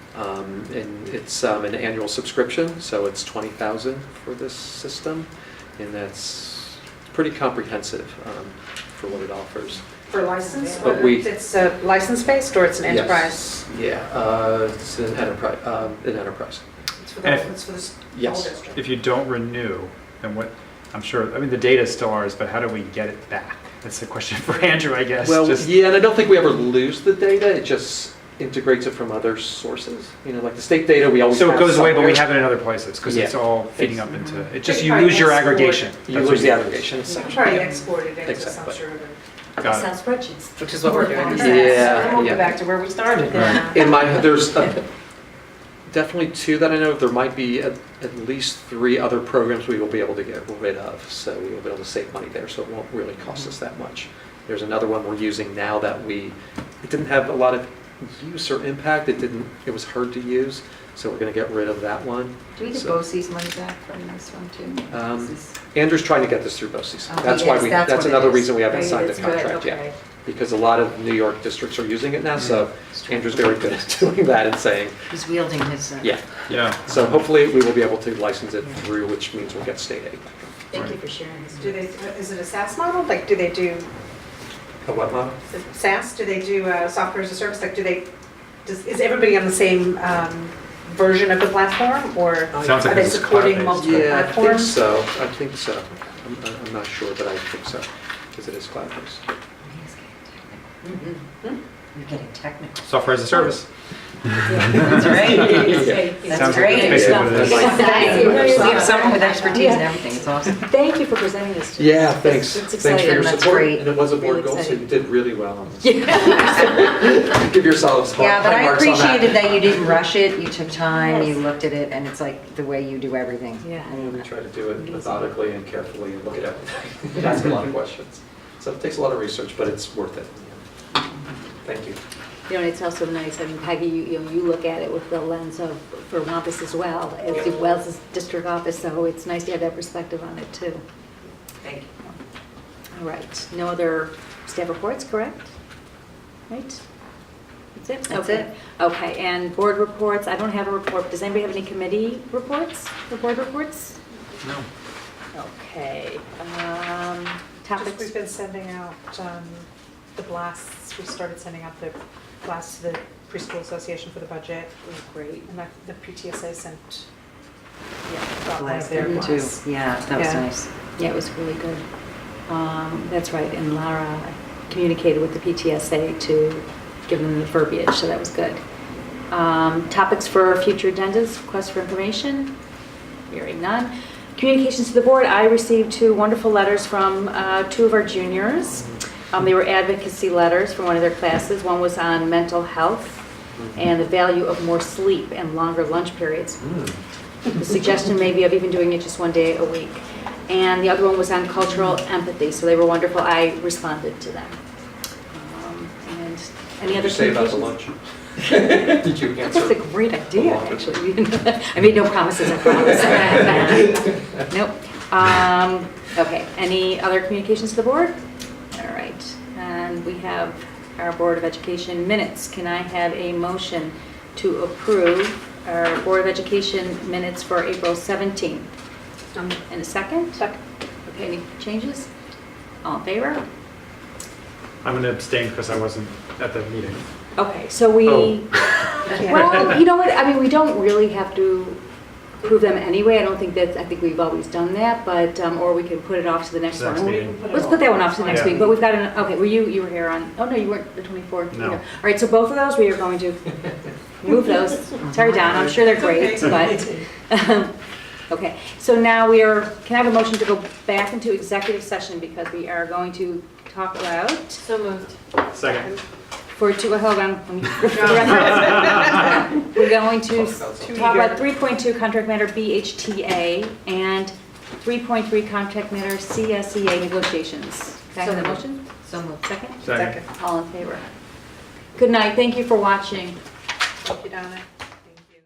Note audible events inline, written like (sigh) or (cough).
Um, And it's um, an annual subscription, so it's 20,000 for this system, and that's pretty comprehensive um, for what it offers. For license? But or we- It's uh, license-based or it's an enterprise? Yes. Yeah, uh, it's an enterprise, um, an enterprise. It's for the, And- it's for the s- whole Yes. district. If you don't renew, then what, I'm sure, I mean, the data is still ours, but how do we get it back? That's the question for (laughs) Andrew, I guess. Well, Just- yeah, and I don't think we ever lose the data, it just integrates it from other sources. You know, like the state data, we always So it have goes away, but somewhere. we have it in other places, because it's Yeah. all feeding It's- up into, it just, They you probably lose your export- aggregation. You That's what lose the lose. aggregation. So essentially. Probably export it into some Exactly. sort of, Got it. Excel spreadsheets. which is what we're doing. Yeah, yeah. We'll go back to where we started Right. then. In my, there's uh, definitely two that I know of. There might be at, at least three other programs we will be able to get rid of. So we will be able to save money there, so it won't really cost us that much. There's another one we're using now that we, it didn't have a lot of use or impact. It didn't, it was hard to use, so we're gonna get rid of that one. Do we get So- BOCES money back from this one too? Um, This is- Andrew's trying to get this through BOCES. Oh, That's why yes, we, that's that's what it another is. reason we haven't Right, signed the it's good, contract okay. yet. Because a lot of New York districts are using it now, so Andrew's very good at (laughs) doing that and saying, He's wielding his. uh, yeah. Yeah. So hopefully, we will be able to license it through, which means we'll get state aid. Thank you for sharing this. Do they, is it a SaaS model? Like, do they do A what model? SaaS? Do they do uh, software as a service? Like, do they, does, is everybody on the same um, version of the platform or Sounds are like they this is supporting cloud-based. multiple uh, Yeah, uh, I think platforms? so, I think so. I'm, uh, I'm not sure, but I think so, because it is cloud-based. Mm-hmm. Hmm? Mm-hmm. You're getting technical. Software as a service. (laughs) (laughs) That's Yeah. right. Sounds (laughs) That's like great. basically what it is. Exactly. You have someone with expertise and everything, it's awesome. Thank you for presenting this to us. Yeah, thanks. It's Thanks for exciting, your that's support. great. And it was a board Really goal, so you exciting. did really well on (laughs) this. Yeah. (laughs) (laughs) Give yourselves high Yeah, but high I marks on that. appreciated that you didn't rush it, you took time, you Yes. looked at it, and it's like the way you do everything. Yeah. I (laughs) mean, We try to do it methodically and carefully and look at everything, (laughs) and ask a (laughs) lot of questions. So it takes a lot of research, but it's worth it. Thank you. You know, it's also nice, I mean, Peggy, you, you know, you look at it with the lens of Vermontis as well, as well as district office, so it's nice to have that perspective on it too. Thank you. All right, no other staff reports, correct? Right? That's it? That's Okay. it. Okay, and board reports, I don't have a report, does anybody have any committee reports, or board reports? No. Okay, um, Just, topics? we've been sending out um, the blasts, we started sending out the blasts to the preschool association for the budget. Oh, Great, And I- the PTSA sent, yeah. got one of Last their thing too. blasts. Yeah, that was Yeah. nice. Yeah, it was really good. Um, That's right, and Lara communicated with the PTSA to give them the verbiage, so that was good. Um, Topics for future agendas, requests for information? Hearing none. Communications to the board, I received two wonderful letters from uh, two of our juniors. Um, They were advocacy letters from one of their classes. One was on mental health Mm-hmm. and the value of more sleep and longer lunch periods. Mm. Hmm. The suggestion maybe of even doing it just one day a week. And the other one was on cultural empathy, so they were wonderful. I responded to them. Um, And any What'd other you say about the communications? lunch? (laughs) Did (laughs) you That's a answer? great idea, actually. (laughs) I made no promises, I promise. Nope. Um, Okay, any other communications to the board? All right, and we have our Board of Education minutes. Can I have a motion to approve our Board of Education minutes for April 17th? Um, In a second? (laughs) Second. Okay, any changes? All in favor? I'm going to abstain because I wasn't at the meeting. Okay, so we. Oh. Well, you know what, I mean, we don't really have to prove them anyway, I don't think that's, I think we've always done that, but, um, or we can put it off to the next Next one. meeting. Let's put that one off to the next Yeah. meeting, but we've got an, okay, were you, you were here on, oh no, you weren't the 24th. No. either. All right, so both of those, we are going to move those, sorry, Don, I'm sure they're (laughs) great, but, um, okay. So now we are, can I have a motion to go back into executive session because we are going to talk loud So moved. Second. for two, hold on, let me- We're going to s- Too talk about 3.2 contract matter BHTA and 3.3 contract matter CSEA negotiations. Can I have a motion? So moved. Second? Second. All in favor? Good night, thank you for watching. Thank you, Donna.